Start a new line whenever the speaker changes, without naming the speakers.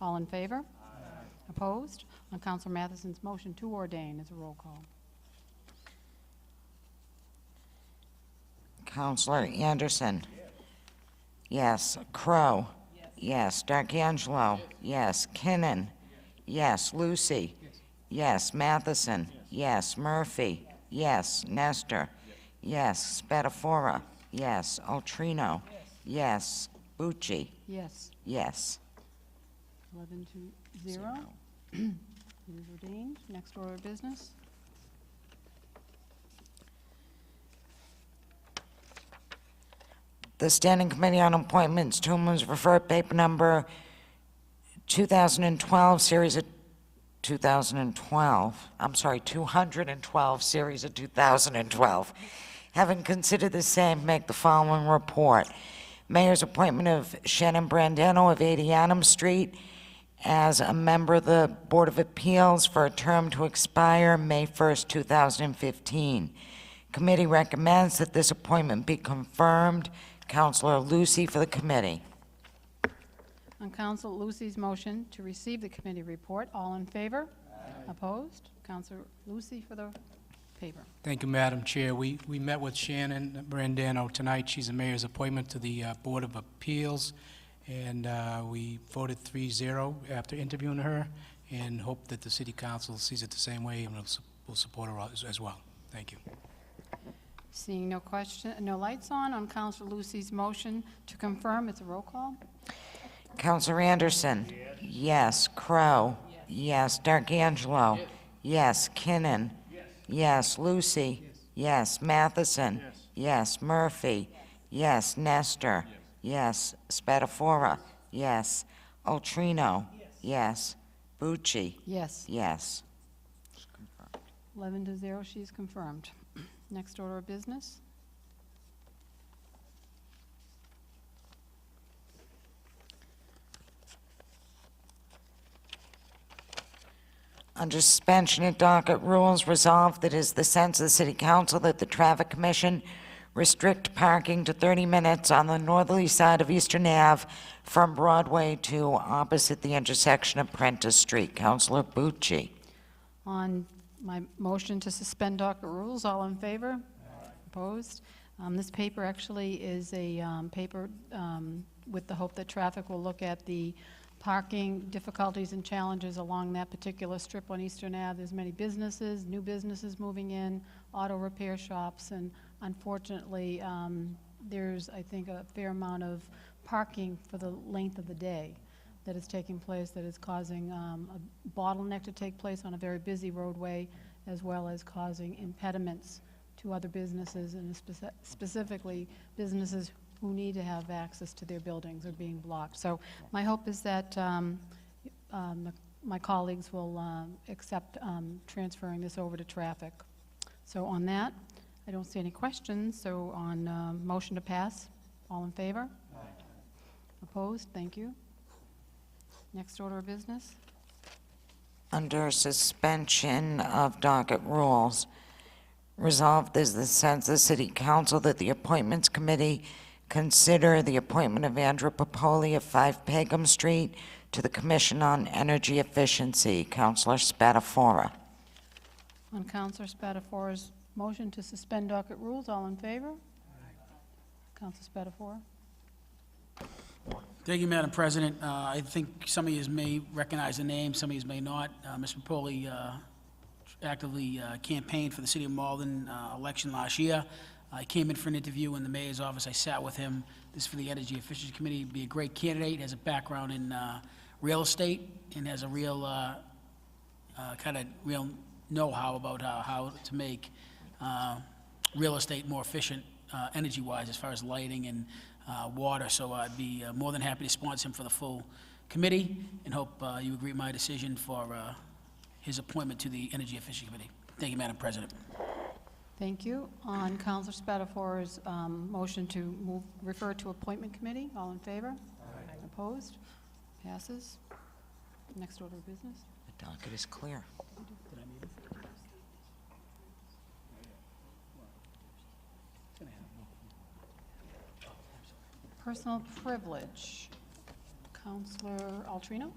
All in favor? Opposed? On Counselor Matheson's motion to ordain is a roll call.
Counselor Anderson. Yes. Crow. Yes. D'Angelo. Yes. Kinnon. Yes. Lucy. Yes. Matheson. Yes. Murphy. Yes. Nestor. Yes. Spatafora. Yes. Altrino. Yes. Bucci.
Yes,
Yes.
eleven to zero. It is ordained. Next order of business.
The Standing Committee on Appointments, Toomelan's referred paper number 2012, series of 2012, I'm sorry, 212, series of 2012. Having considered the same, make the following report. Mayor's appointment of Shannon Brandano of 80 Adams Street as a member of the Board of Appeals for a term to expire May 1st, 2015. Committee recommends that this appointment be confirmed. Counselor Lucy for the committee.
On Counsel Lucy's motion to receive the committee report, all in favor? Opposed? Counselor Lucy for the paper.
Thank you, Madam Chair. We, we met with Shannon Brandano tonight. She's the mayor's appointment to the uh, Board of Appeals, and uh, we voted 3-0 after interviewing her, and hope that the city council sees it the same way and will su- will support her as- as well. Thank you.
Seeing no question, no lights on, on Counsel Lucy's motion to confirm, it's a roll call.
Counselor Anderson? Yes. Crow? Yes. D'Angelo? Yes. Kinnon? Yes. Lucy? Yes. Matheson? Yes. Murphy? Yes. Nestor? Yes. Spatafora? Yes. Altrino? Yes. Bucci?
Yes,
Yes.
11 to 0, she's confirmed. Next order of business.
Under suspension of docket rules, resolved that it is the sense of the City Council that the Traffic Commission restrict parking to 30 minutes on the northerly side of Eastern Ave from Broadway to opposite the intersection of Prentice Street. Councilor Bucci.
On my motion to suspend docket rules, all in favor? Opposed? Um, This paper actually is a um, paper um, with the hope that traffic will look at the parking difficulties and challenges along that particular strip on Eastern Ave. There's many businesses, new businesses moving in, auto repair shops, and unfortunately, um, there's, I think, a fair amount of parking for the length of the day that is taking place that is causing um, a bottleneck to take place on a very busy roadway, as well as causing impediments to other businesses, and speci- specifically businesses who need to have access to their buildings are being blocked. So my hope is that um, um, the- my colleagues will um, accept um, transferring this over to traffic. So on that, I don't see any questions, so on um, motion to pass, all in favor? Opposed? Thank you. Next order of business?
Under suspension of docket rules, resolved is the sense of the City Council that the Appointments Committee consider the appointment of Andrew Popoli of 5 Pagum Street to the Commission on Energy Efficiency. Councilor Spatafora.
On Counselor Spatafora's motion to suspend docket rules, all in favor? Counselor Spatafora?
Thank you, Madam President. Uh, I think some of yous may recognize the name, some of yous may not. Uh, Mr. Poli uh, actively uh, campaigned for the City of Malden uh, election last year. I came in for an interview in the mayor's office, I sat with him. This is for the Energy Efficiency Committee, be a great candidate, has a background in uh, real estate, and has a real uh, kind of real know-how about how, how to make uh, real estate more efficient uh, energy-wise as far as lighting and uh, water. So I'd be uh, more than happy to sponsor him for the full committee and hope uh, you agree with my decision for uh, his appointment to the Energy Efficiency Committee. Thank you, Madam President.
Thank you. On Counselor Spatafora's um, motion to move, refer to appointment committee, all in favor? Opposed? Passes. Next order of business?
The docket is clear.
Personal privilege. Counselor Altrino?